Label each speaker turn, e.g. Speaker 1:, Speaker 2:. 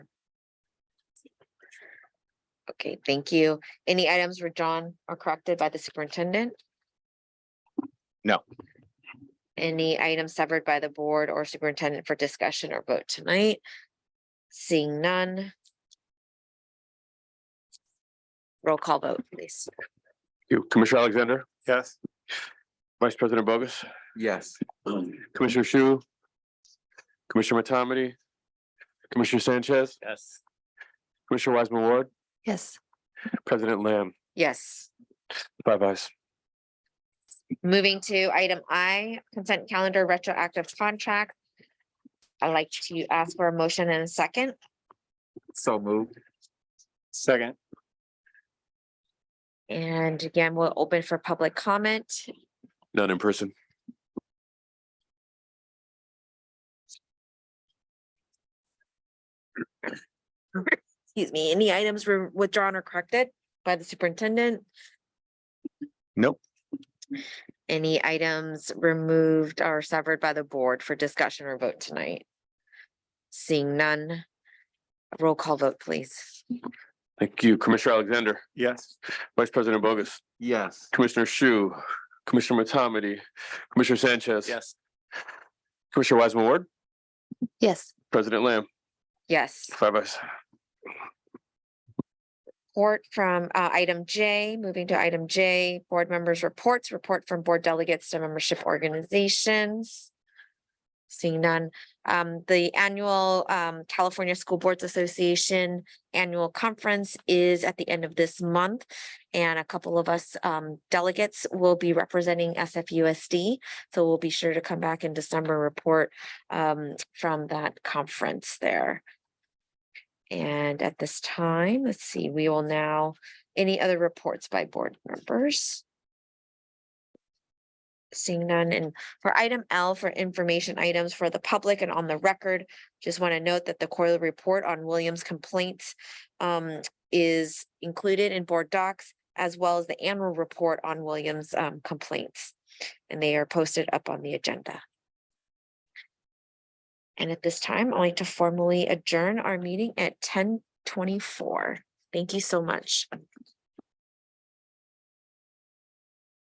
Speaker 1: Okay, thank you. Any items withdrawn or corrected by the superintendent?
Speaker 2: No.
Speaker 1: Any items severed by the board or superintendent for discussion or vote tonight? Seeing none. Roll call vote, please.
Speaker 3: You, Commissioner Alexander,
Speaker 2: Yes.
Speaker 3: Vice President Bogus,
Speaker 4: Yes.
Speaker 3: Commissioner Shu, Commissioner Matomedy, Commissioner Sanchez,
Speaker 4: Yes.
Speaker 3: Commissioner Wiseman Ward,
Speaker 5: Yes,
Speaker 3: President Lamb,
Speaker 1: Yes.
Speaker 3: five ayes.
Speaker 1: Moving to item I, consent calendar retroactive contract. I'd like to ask for a motion and a second.
Speaker 4: So moved.
Speaker 2: Second.
Speaker 1: And again, we'll open for public comment.
Speaker 3: None in person.
Speaker 1: Excuse me, any items were withdrawn or corrected by the superintendent?
Speaker 2: Nope.
Speaker 1: Any items removed or severed by the board for discussion or vote tonight? Seeing none. Roll call vote, please.
Speaker 3: Thank you, Commissioner Alexander,
Speaker 2: Yes.
Speaker 3: Vice President Bogus,
Speaker 4: Yes.
Speaker 3: Commissioner Shu, Commissioner Matomedy, Commissioner Sanchez.
Speaker 2: Yes.
Speaker 3: Commissioner Wiseman Ward,
Speaker 5: yes,
Speaker 3: President Lamb,
Speaker 1: Yes.
Speaker 3: five ayes.
Speaker 1: report from uh, item J, moving to item J, board members' reports, report from board delegates to membership organizations. Seeing none, um, the annual um, California School Boards Association Annual Conference is at the end of this month. And a couple of us um, delegates will be representing SFUSD. So we'll be sure to come back in December, report um, from that conference there. And at this time, let's see, we will now, any other reports by board members? Seeing none, and for item L for information items for the public and on the record, just want to note that the quarterly report on Williams complaints um, is included in board docs as well as the annual report on Williams um, complaints. And they are posted up on the agenda. And at this time, I'd like to formally adjourn our meeting at ten twenty-four. Thank you so much.